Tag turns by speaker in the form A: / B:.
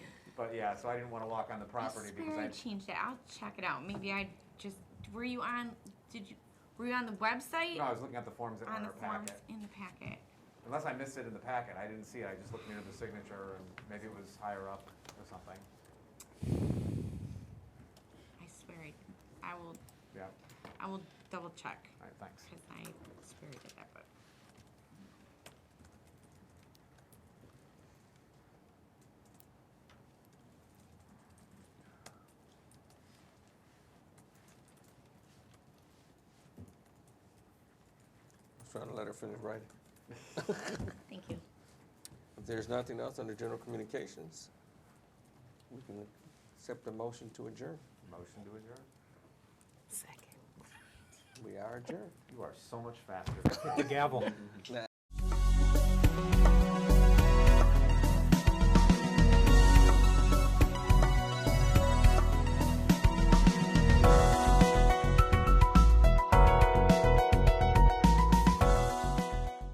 A: But yeah, so I didn't wanna walk on the property because
B: I
A: I,
B: swear I changed it. I'll check it out. Maybe I just, were you on, did you, were you on the website?
A: no, I was looking at the forms that were
B: On
A: in
B: the
A: our
B: forms
A: packet.
B: in the packet.
A: Unless I missed it in the packet, I didn't see it, I just looked near the signature and maybe it was higher up or something,
B: I swear I, I will,
A: yeah,
B: I will double check,
A: alright, thanks.
B: because I swear I did that, but.
C: I was trying to let her finish writing.
B: Thank you.
C: If there's nothing else under general communications, we can accept the motion to adjourn.
A: Motion to adjourn?
B: Second.
C: We are adjourned.
A: You are so much faster.
D: The gavel.
C: Nah,